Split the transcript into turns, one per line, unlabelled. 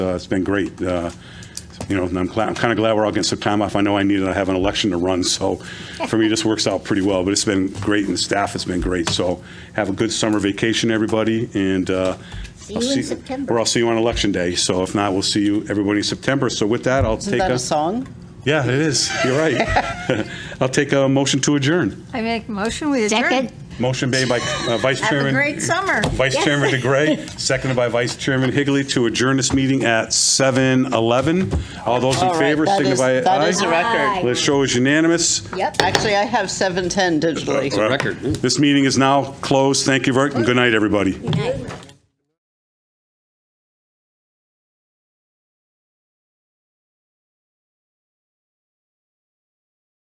Uh, It's been great. Uh, You know, and I'm kind of glad we're all getting some time off. I know I needed, I have an election to run, so for me, this works out pretty well. But it's been great, and the staff has been great. So have a good summer vacation, everybody, and. uh,
See
I'll
you in September.
Or I'll see you on Election Day. So if not, we'll see you, everybody, in September. So with that, I'll
Isn't
take
that
a.
a song?
Yeah, it is. You're right. I'll take a motion to adjourn.
I make a motion with adjourn.
Second.
Motion made by uh, Vice
Have a
Chairman.
great summer.
Vice
Yes.
Chairman DeGray, seconded by Vice Chairman Higley to adjourn this meeting at 7:11. All those in
All right,
favor
that is-
signify aye.
that is a
Aye.
record.
The show is unanimous.
Yep.
Actually, I have 710 digitally.
This meeting is now closed. Thank you very, and good night, everybody.
Good night.